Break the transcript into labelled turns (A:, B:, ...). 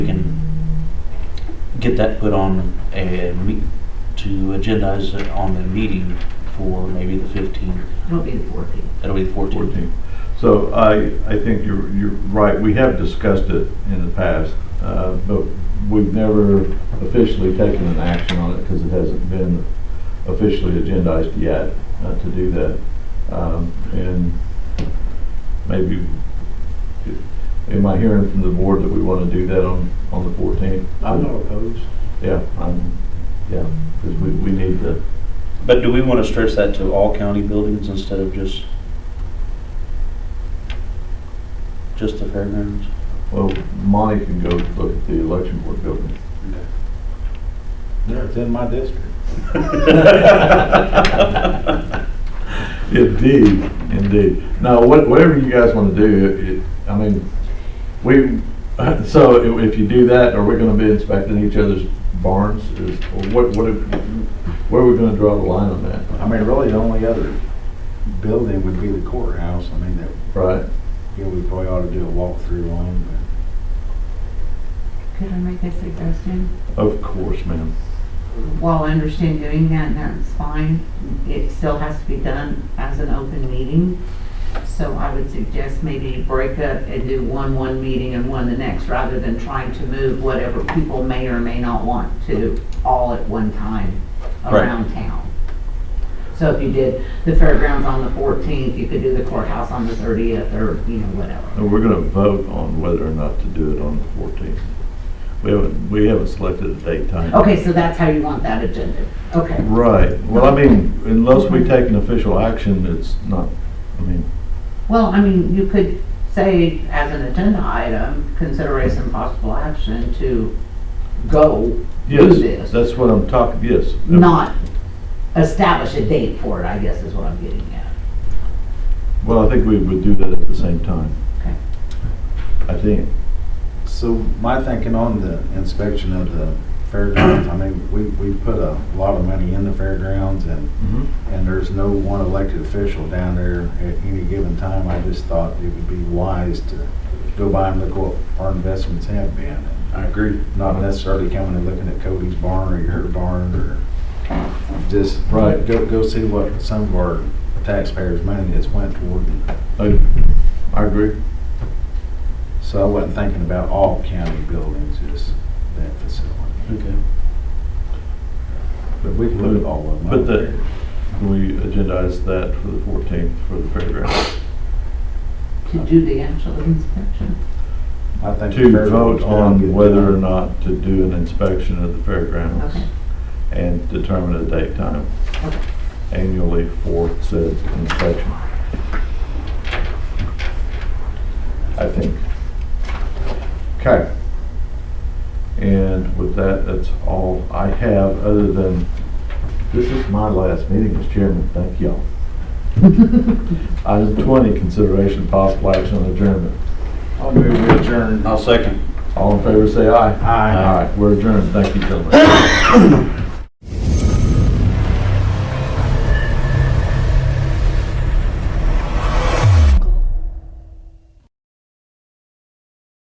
A: get that put on a, me- to agendize it on the meeting for maybe the 15th.
B: It'll be the 14th.
A: That'll be the 14th.
C: 14. So I, I think you're, you're right, we have discussed it in the past, uh, but we've never officially taken an action on it because it hasn't been officially agendized yet uh, to do that. Um, And maybe, am I hearing from the board that we want to do that on, on the 14th?
D: I'm not opposed.
C: Yeah, I'm, yeah, because we, we need to,
A: But do we want to stretch that to all county buildings instead of just, just the fairgrounds?
C: well, Monty can go look at the election board building.
D: No, it's in my district.
C: Indeed, indeed. Now, what- whatever you guys want to do, it- it- I mean, we, so i- if you do that, are we going to be inspecting each other's barns? Is or What, what, if- where are we going to draw the line on that,
D: I mean, really, the only other building would be the courthouse. I mean, that,
C: right?
D: you know, we probably ought to do a walkthrough on, but
B: Could I make a suggestion?
C: Of course, ma'am.
B: While I understand doing that, and that's fine, it still has to be done as an open meeting. So I would suggest maybe break up and do one, one meeting and one the next, rather than trying to move whatever people may or may not want to all at one time
A: Right.
B: around town. So if you did the fairgrounds on the 14th, you could do the courthouse on the 30th, or, you know, whatever.
C: And we're going to vote on whether or not to do it on the 14th. We haven't, we haven't selected a date time.
B: Okay, so that's how you want that agenda, okay.
C: Right. Well, I mean, unless we take an official action, it's not, I mean,
B: Well, I mean, you could say as an agenda item, consideration and possible action to go do
C: Yes,
B: this,
C: that's what I'm talking, yes.
B: not establish a date for it, I guess is what I'm getting at.
C: Well, I think we would do that at the same time.
B: Okay.
C: I think.
D: So my thinking on the inspection of the fairgrounds, I mean, we, we put a lot of money in the fairgrounds and, and there's no one elected official down there at any given time. I just thought it would be wise to go by and look what our investments have been.
A: I agree.
D: Not necessarily coming and looking at Cody's barn or your barn or just.
C: Right.
D: Go, go see what some of our taxpayers' money has went toward.
C: I I agree.
D: So I wasn't thinking about all county buildings, just that facility.
A: Okay.
D: But we can look at all of them.
C: But the, can we agendize that for the 14th for the fairgrounds?
B: To do the actual inspection.
D: I think the
C: To
D: fair
C: vote
D: board's gonna
C: on
D: get
C: whether or
D: done.
C: not to do an inspection of the fairgrounds
B: Okay.
C: and determine a date time
B: Okay.
C: annually for said inspection. I think. Okay. And with that, that's all I have, other than, this is my last meeting as chairman, thank y'all. Item twenty, consideration possible action on adjournment.
D: I'll move we adjourn.
A: I'll second.
C: All in favor, say aye.
D: Aye.
C: Aye, we're adjourned, thank you, gentlemen.